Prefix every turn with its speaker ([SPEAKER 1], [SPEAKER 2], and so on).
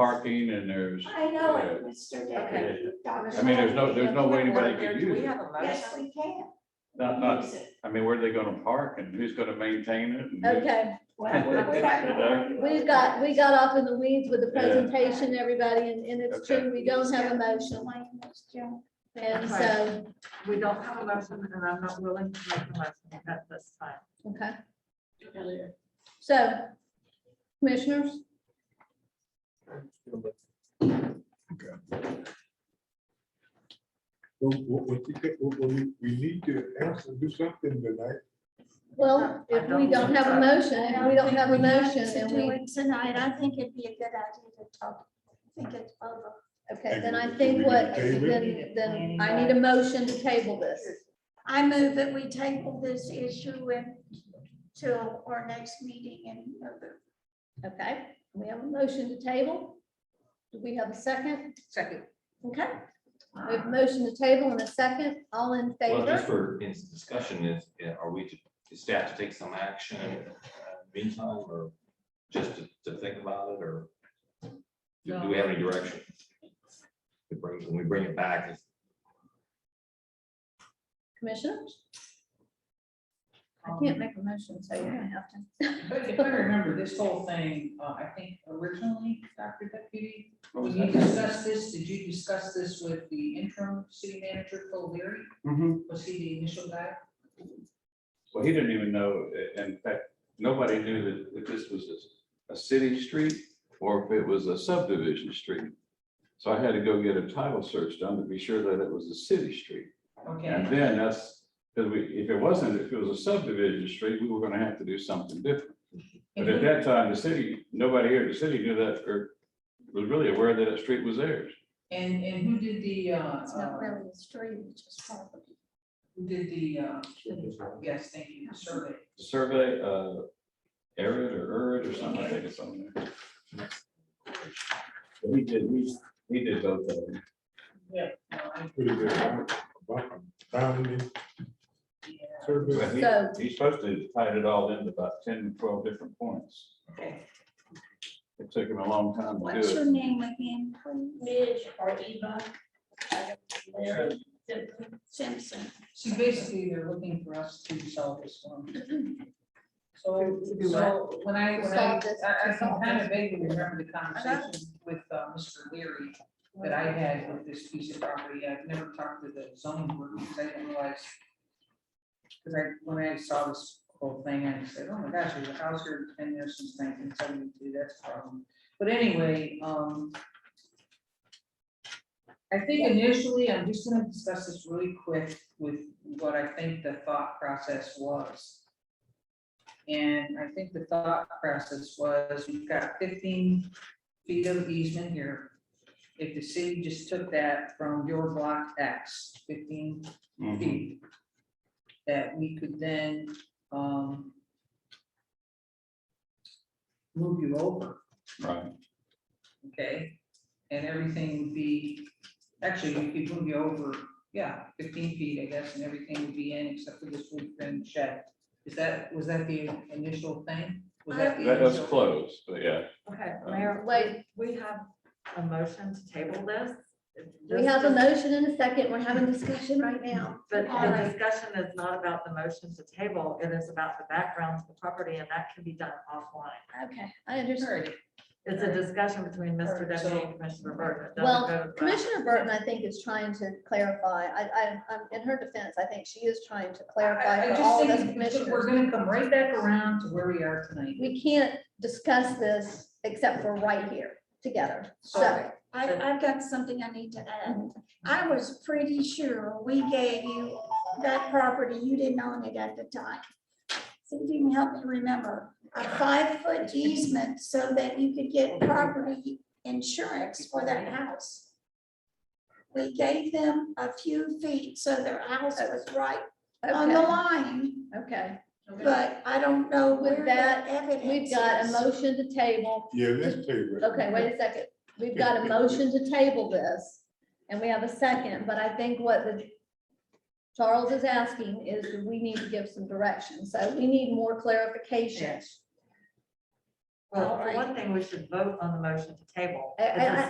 [SPEAKER 1] parking and there's,
[SPEAKER 2] I know it, Mr.
[SPEAKER 1] Okay.
[SPEAKER 2] Deputy Doctor.
[SPEAKER 1] I mean, there's no, there's no way anybody could
[SPEAKER 3] Do
[SPEAKER 1] use
[SPEAKER 3] we
[SPEAKER 1] it.
[SPEAKER 3] have a
[SPEAKER 2] Yes,
[SPEAKER 3] motion?
[SPEAKER 2] we can.
[SPEAKER 1] Not, not,
[SPEAKER 2] Use it.
[SPEAKER 1] I mean, where are they gonna park and who's gonna maintain it? and who's-
[SPEAKER 4] Okay,
[SPEAKER 2] Well, we're not gonna worry about
[SPEAKER 4] we
[SPEAKER 2] it.
[SPEAKER 4] got, we got off in the weeds with the
[SPEAKER 1] Yeah.
[SPEAKER 4] presentation, everybody, and, and it's
[SPEAKER 1] Okay.
[SPEAKER 4] true, we don't have a
[SPEAKER 2] The
[SPEAKER 4] motion.
[SPEAKER 2] language, Joe.
[SPEAKER 4] And
[SPEAKER 3] Okay.
[SPEAKER 4] so,
[SPEAKER 3] We don't have a motion and I'm not willing to make a motion at this time.
[SPEAKER 4] okay, so, commissioners,
[SPEAKER 5] Well, well, we could- well, well, we- we need to answer, do something tonight.
[SPEAKER 4] well, if we don't have a motion, if we don't have a motion, and
[SPEAKER 2] Do
[SPEAKER 4] we,
[SPEAKER 2] it Tonight, I think it'd be a good idea to talk, think it over.
[SPEAKER 4] okay, then I think what, then, then I need a motion to table this.
[SPEAKER 2] I move that we table this issue and till our next meeting in November.
[SPEAKER 4] Okay, we have a motion to table. Do we have a second?
[SPEAKER 3] Second.
[SPEAKER 4] Okay, we have a motion to table and a second, all in
[SPEAKER 6] Well, just
[SPEAKER 4] favor?
[SPEAKER 6] for, in discussion is, yeah, are we, to- is staff to take some action in the meantime, or just to, to think about it, or? Do do we have any direction? To bring, when we bring it back, it's-
[SPEAKER 4] Commissioners? I
[SPEAKER 7] Um,
[SPEAKER 4] can't make a motion, so you're gonna have to.
[SPEAKER 7] But if I remember this whole thing, uh, I think originally, Dr. Deputy, when you discussed this, did you discuss this with the interim city manager, Phil Leary?
[SPEAKER 1] Mhm.
[SPEAKER 7] Was he the initial guy?
[SPEAKER 1] Well, he didn't even know, i- in fact, nobody knew that, that this was a, a city street or if it was a subdivision street. So I had to go get a title search done to be sure that it was a city street. And
[SPEAKER 7] Okay,
[SPEAKER 1] then that's, because we, if it wasn't, if it was a subdivision street, we were gonna have to do something different. But
[SPEAKER 7] Mhm.
[SPEAKER 1] at that time, the city, nobody here in the city knew that, or was really aware that that street was theirs.
[SPEAKER 7] and, and who did the, uh,
[SPEAKER 2] It's not
[SPEAKER 7] uh,
[SPEAKER 2] really a stream, it's just part of it.
[SPEAKER 7] who did the, uh, yes, thank you, survey?
[SPEAKER 1] Survey, uh, Arid or Urid or something, I think it's on there. But He did, he, he did both of them.
[SPEAKER 7] Yeah. no, I-
[SPEAKER 5] Put it there, about boundary
[SPEAKER 7] yeah,
[SPEAKER 1] But
[SPEAKER 5] service.
[SPEAKER 1] he-
[SPEAKER 4] So-
[SPEAKER 1] He's supposed to tie it all into about 10, 12 different points.
[SPEAKER 7] Okay.
[SPEAKER 1] It took him a long time to
[SPEAKER 2] What's
[SPEAKER 1] do
[SPEAKER 2] your
[SPEAKER 1] it.
[SPEAKER 2] name again, please?
[SPEAKER 8] Midge or Eva.
[SPEAKER 1] Mary.
[SPEAKER 2] Simpson.
[SPEAKER 7] So basically, they're looking for us to solve this one. So,
[SPEAKER 3] To do
[SPEAKER 7] so when I, when I,
[SPEAKER 4] Solve this,
[SPEAKER 7] I I
[SPEAKER 4] to solve
[SPEAKER 7] can kind of vaguely remember the conversation with uh, Mr. Leary that I had with this piece of property. I've never talked to the zoning board because I didn't realize. Because I, when I saw this whole thing, I said, oh my gosh, there's a house here ten years since nineteen seventy-two, that's a problem. But anyway, um. I think initially, I'm just gonna discuss this really quick with what I think the thought process was. And I think the thought process was, we've got fifteen feet of easement here. If the city just took that from your block X, fifteen
[SPEAKER 1] Mhm.
[SPEAKER 7] feet. That we could then, um. Move you over
[SPEAKER 1] Right.
[SPEAKER 7] okay? And everything would be, actually, you could move you over, yeah, fifteen feet, I guess, and everything would be in except for this wood frame shed. Is that, was that the initial thing? Was that the
[SPEAKER 1] That was
[SPEAKER 7] initial-
[SPEAKER 1] close, but yeah.
[SPEAKER 3] Okay,
[SPEAKER 1] Um,
[SPEAKER 3] Mayor,
[SPEAKER 4] Wait.
[SPEAKER 3] wait, we have a motion to table this.
[SPEAKER 4] We have a motion and a second, we're having discussion right now.
[SPEAKER 3] But
[SPEAKER 4] All
[SPEAKER 3] the
[SPEAKER 4] right.
[SPEAKER 3] discussion is not about the motion to table, it is about the background to the property, and that can be done offline.
[SPEAKER 4] Okay, I understand.
[SPEAKER 7] Alright,
[SPEAKER 3] It's a discussion between Mr.
[SPEAKER 7] Alright,
[SPEAKER 3] Deputy
[SPEAKER 7] so-
[SPEAKER 3] and Commissioner Burton. It doesn't
[SPEAKER 4] Well,
[SPEAKER 3] go to the-
[SPEAKER 4] Commissioner Burton, I think, is trying to clarify. I, I, I'm- in her defense, I think she is trying to
[SPEAKER 7] I-
[SPEAKER 4] clarify
[SPEAKER 7] I
[SPEAKER 4] for
[SPEAKER 7] just
[SPEAKER 4] all of us
[SPEAKER 7] think We're
[SPEAKER 4] commissioners.
[SPEAKER 7] gonna come right back around to where we are tonight.
[SPEAKER 4] We can't discuss this except for right here together. So, Mm-hmm.
[SPEAKER 7] So,
[SPEAKER 2] I, I've got something I need to add. I was pretty sure we gave you that property, you didn't own it at the time. See if you can help me remember, a five-foot easement so that you could get property insurance for that house. We gave them a few feet, so their house was right on the
[SPEAKER 4] Oh, okay,
[SPEAKER 2] line,
[SPEAKER 4] okay.
[SPEAKER 2] but I don't know where
[SPEAKER 4] With that,
[SPEAKER 2] that evidence
[SPEAKER 4] We've got a
[SPEAKER 2] is.
[SPEAKER 4] motion to table.
[SPEAKER 5] Yeah, let's table it.
[SPEAKER 4] Okay, wait a second. We've got a motion to table this and we have a second, but I think what the Charles is asking is that we need to give some direction. So we need more clarification.
[SPEAKER 7] yes.
[SPEAKER 3] Well,
[SPEAKER 4] All
[SPEAKER 3] for
[SPEAKER 4] right.
[SPEAKER 3] one thing, we should vote on the motion to table.
[SPEAKER 4] I- I-
[SPEAKER 3] because